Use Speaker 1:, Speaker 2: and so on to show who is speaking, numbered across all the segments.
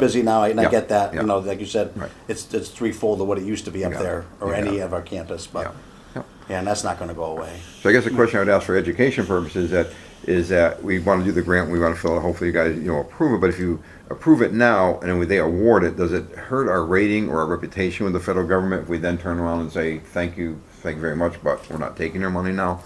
Speaker 1: busy now, and I
Speaker 2: Yeah,
Speaker 1: get that, you
Speaker 2: yeah.
Speaker 1: know, like you said,
Speaker 2: Right.
Speaker 1: it's, it's threefold of what it used to be up
Speaker 2: Yeah,
Speaker 1: there, or
Speaker 2: yeah.
Speaker 1: any of our campus, but,
Speaker 2: Yeah, yeah.
Speaker 1: yeah, and that's not gonna go away.
Speaker 2: So I guess the question I would ask for education purposes that is that we want to do the grant, we want to fill it, hopefully you guys, you know, approve it, but if you approve it now and then they award it, does it hurt our rating or our reputation with the federal government if we then turn around and say, thank you, thank you very much, but we're not taking your money now?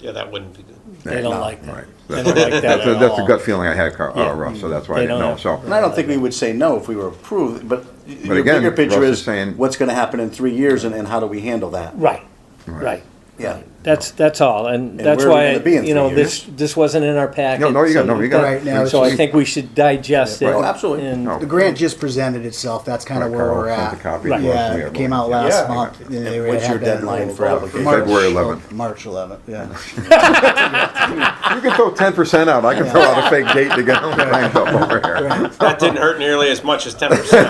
Speaker 3: Yeah, that wouldn't be good.
Speaker 4: They
Speaker 2: No,
Speaker 4: don't like that.
Speaker 2: right.
Speaker 4: They don't like that
Speaker 2: That's, a-
Speaker 4: at
Speaker 2: that's a
Speaker 4: all.
Speaker 2: gut feeling I had, Carl, uh,
Speaker 4: Yeah.
Speaker 2: Russ, so that's why I
Speaker 4: They
Speaker 2: didn't know,
Speaker 4: don't
Speaker 2: so.
Speaker 1: And I don't think we would say no if we were approved, but y- your
Speaker 2: again,
Speaker 1: bigger picture
Speaker 2: Russ is
Speaker 1: is,
Speaker 2: saying-
Speaker 1: what's gonna happen in three years, and, and how do we handle that?
Speaker 4: Right, right.
Speaker 1: Yeah,
Speaker 4: That's, that's all, and
Speaker 1: And
Speaker 4: that's
Speaker 1: where are we
Speaker 4: why,
Speaker 1: gonna be in
Speaker 4: you
Speaker 1: three
Speaker 4: know, this, this wasn't in our packet.
Speaker 2: No, no, you got-
Speaker 4: so
Speaker 2: no, you
Speaker 4: we've
Speaker 2: got- Right, now it's
Speaker 4: So I
Speaker 2: just-
Speaker 4: think we should digest it.
Speaker 2: Right.
Speaker 1: Oh, Absolutely.
Speaker 4: and-
Speaker 2: No.
Speaker 5: The grant just presented itself. That's kind of
Speaker 2: Right,
Speaker 5: where
Speaker 2: Carl
Speaker 5: we're
Speaker 2: sent
Speaker 5: at.
Speaker 2: the copy
Speaker 4: to us.
Speaker 5: Yeah,
Speaker 2: We
Speaker 5: it
Speaker 2: have
Speaker 5: came
Speaker 2: one.
Speaker 5: out
Speaker 3: Yeah.
Speaker 5: last month. and they
Speaker 1: what's
Speaker 5: had
Speaker 1: your
Speaker 5: to have
Speaker 1: deadline
Speaker 5: it
Speaker 1: for application?
Speaker 5: March-
Speaker 2: February 11th.
Speaker 5: March 11th, yeah.
Speaker 2: You can throw ten percent out, I can throw out a fake date to get on the plan over here.
Speaker 3: That didn't hurt nearly as much as ten percent.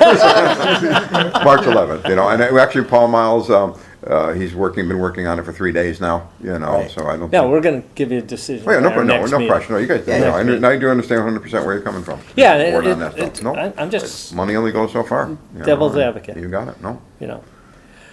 Speaker 2: March 11th, you know, and uh, actually Paul Miles, um, uh, he's working, been working on it for three days now, you know,
Speaker 1: Right.
Speaker 2: so I don't.
Speaker 4: Yeah,
Speaker 2: think-
Speaker 4: we're gonna give you a decision.
Speaker 2: Oh, yeah, no,
Speaker 4: at our
Speaker 2: no,
Speaker 4: next
Speaker 2: no
Speaker 4: meeting.
Speaker 2: pressure, no, you guys,
Speaker 1: Yeah,
Speaker 2: no,
Speaker 1: next
Speaker 2: I,
Speaker 1: meeting.
Speaker 2: I do understand hundred percent where you're coming from.
Speaker 4: Yeah,
Speaker 2: Board
Speaker 4: it,
Speaker 2: on
Speaker 4: it,
Speaker 2: that
Speaker 4: it,
Speaker 2: stuff. No,
Speaker 4: I- I'm just,
Speaker 2: money only goes so far. you know,
Speaker 4: Devil's
Speaker 2: and
Speaker 4: advocate.
Speaker 2: You got it, no,
Speaker 4: you know,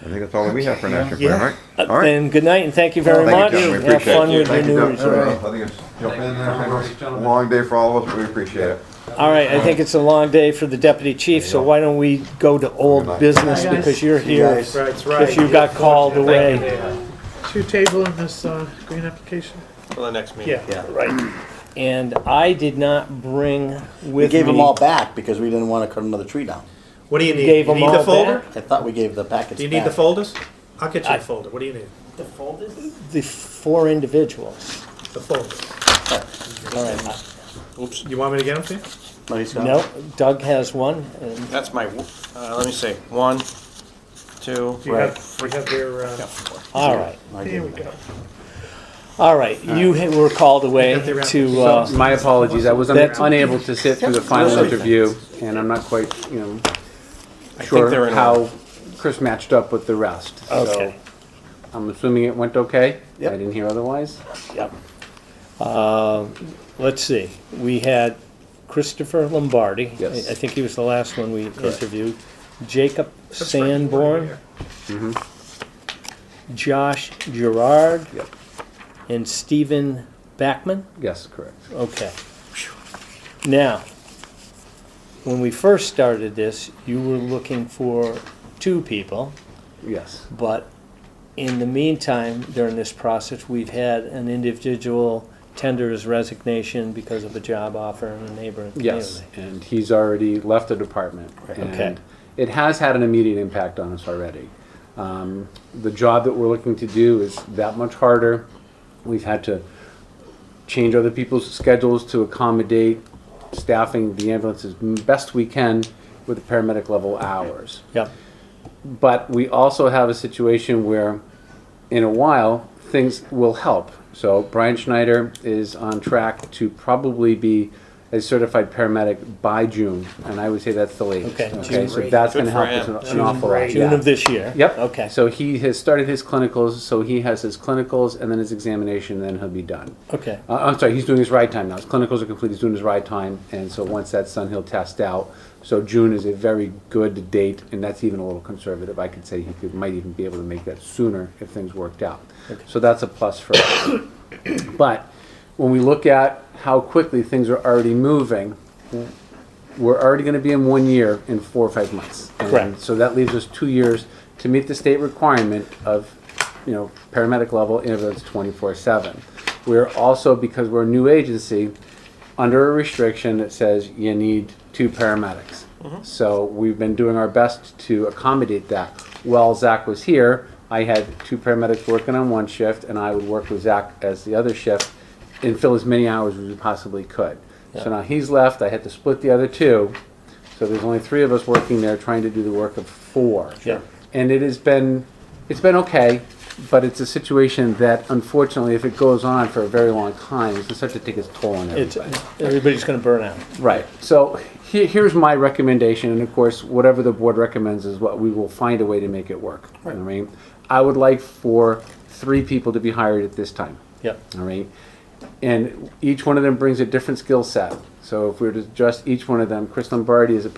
Speaker 2: I think that's all that we have for an action
Speaker 5: Yeah.
Speaker 2: plan, right? All right.
Speaker 4: and good night and thank Uh, you very
Speaker 2: Thank
Speaker 4: much.
Speaker 2: you, gentlemen, we
Speaker 4: Have
Speaker 2: appreciate
Speaker 4: fun
Speaker 2: it.
Speaker 4: with your
Speaker 2: Thank
Speaker 4: new
Speaker 2: you, gentlemen.
Speaker 4: resort.
Speaker 2: I think it's, jump in there, I know it's a long day for all of us, but we appreciate it.
Speaker 4: All right, I think it's a long day for the deputy chief, so why don't we go to
Speaker 2: Good
Speaker 4: old
Speaker 2: night.
Speaker 4: business
Speaker 6: Hi, guys.
Speaker 4: because you're here.
Speaker 1: guys.
Speaker 6: Right, right.
Speaker 4: If you got called away,
Speaker 6: Two table in this uh, green application?
Speaker 3: For the next meeting.
Speaker 6: Yeah.
Speaker 1: yeah.
Speaker 4: and I did not bring
Speaker 1: We
Speaker 4: with
Speaker 1: gave them all
Speaker 4: me,
Speaker 1: back because we didn't wanna cut another tree down.
Speaker 6: What do you need?
Speaker 4: Gave
Speaker 6: You
Speaker 4: them
Speaker 6: need the
Speaker 4: all
Speaker 6: folder?
Speaker 4: back?
Speaker 1: I thought we gave the packets
Speaker 6: Do you need the
Speaker 1: back.
Speaker 6: folders? I'll get you
Speaker 4: I-
Speaker 6: the folder. What do you need?
Speaker 4: the four individuals.
Speaker 6: The folder.
Speaker 4: All right,
Speaker 3: Oops,
Speaker 6: You want me to get them for you?
Speaker 1: No, he's gone.
Speaker 4: no, Doug has one, and
Speaker 3: that's my, w- uh, let me see, one, two,
Speaker 6: Do you have, we have their, uh,
Speaker 4: all right,
Speaker 1: I gave
Speaker 6: here
Speaker 1: him
Speaker 6: we go.
Speaker 4: all right, you ha- were called away
Speaker 6: got the wrap.
Speaker 4: to, uh,
Speaker 7: My apologies, I was un-
Speaker 4: That's-
Speaker 7: unable to sit through the final interview, and I'm not quite, you know,
Speaker 3: I think they're
Speaker 7: sure
Speaker 3: in.
Speaker 7: how Chris matched up with the rest. So,
Speaker 4: uh, okay.
Speaker 7: I'm assuming it went okay?
Speaker 1: Yep.
Speaker 7: I didn't hear otherwise?
Speaker 4: Yep. Uh, Let's see, we had Christopher Lombardi.
Speaker 7: Yes.
Speaker 4: I I think he was the last one we interviewed. Jacob Sanborn. Mm-hmm. Josh Gerard.
Speaker 7: Yep.
Speaker 4: And Stephen Backman.
Speaker 7: Yes, correct.
Speaker 4: Okay. Now, when we first started this, you were looking for two people.
Speaker 7: Yes,
Speaker 4: But in the meantime, during this process, we've had an individual tender his resignation because of a job offer in a neighboring
Speaker 7: yes,
Speaker 4: community.
Speaker 7: and he's already left the department.
Speaker 4: Okay.
Speaker 7: And it has had an immediate impact on us already. Um, The job that we're looking to do is that much harder. We've had to change other people's schedules to accommodate staffing the ambulance as best we can with the paramedic level hours.
Speaker 4: Yep,
Speaker 7: But we also have a situation where, in a while, things will help. So Brian Schneider is on track to probably be a certified paramedic by June, and I would say that's the latest.
Speaker 4: Okay, June.
Speaker 7: so that's
Speaker 3: Good
Speaker 7: going to help
Speaker 3: for
Speaker 7: us
Speaker 3: him.
Speaker 7: an- an awful lot.
Speaker 4: June
Speaker 7: yeah.
Speaker 4: of this year.
Speaker 7: Yep.
Speaker 4: Okay,
Speaker 7: So he has started his clinicals, so he has his clinicals and then his examination, and then he'll be done.
Speaker 4: okay,
Speaker 7: Uh, I'm sorry, he's doing his ride time now. His clinicals are complete. He's doing his ride time, and so once that's done, he'll test out. So June is a very good date, and that's even a little conservative. I could say he could, might even be able to make that sooner if things worked out. So that's a plus for us. but when we look at how quickly things are already moving, we're already going to be in one year in four or five months. And
Speaker 4: Correct.
Speaker 7: So that leaves us two years to meet the state requirement of, you know, paramedic level ambulance twenty-four seven. We're also, because we're a new agency, under a restriction that says you need two paramedics. So we've been doing our best to accommodate that. While Zach was here, I had two paramedics working on one shift and I would work with Zach as the other shift and fill as many hours as we possibly could. So now he's left, I had to split the other two. So there's only three of us working there trying to do the work of four.
Speaker 4: Sure.
Speaker 7: And it has been, it's been okay, but it's a situation that unfortunately, if it goes on for a very long time, it's going to start to take its toll on
Speaker 4: it's,
Speaker 7: everybody.
Speaker 4: everybody's gonna burn out.
Speaker 7: Right. So he- here's my recommendation, and of course, whatever the board recommends is what we will find a way to make it work. You know what I mean, I would like for three people to be hired at this time.
Speaker 4: Yep,
Speaker 7: All right. And each one of them brings a different skill set. So if we were to adjust each one of them, Chris Lombardi is a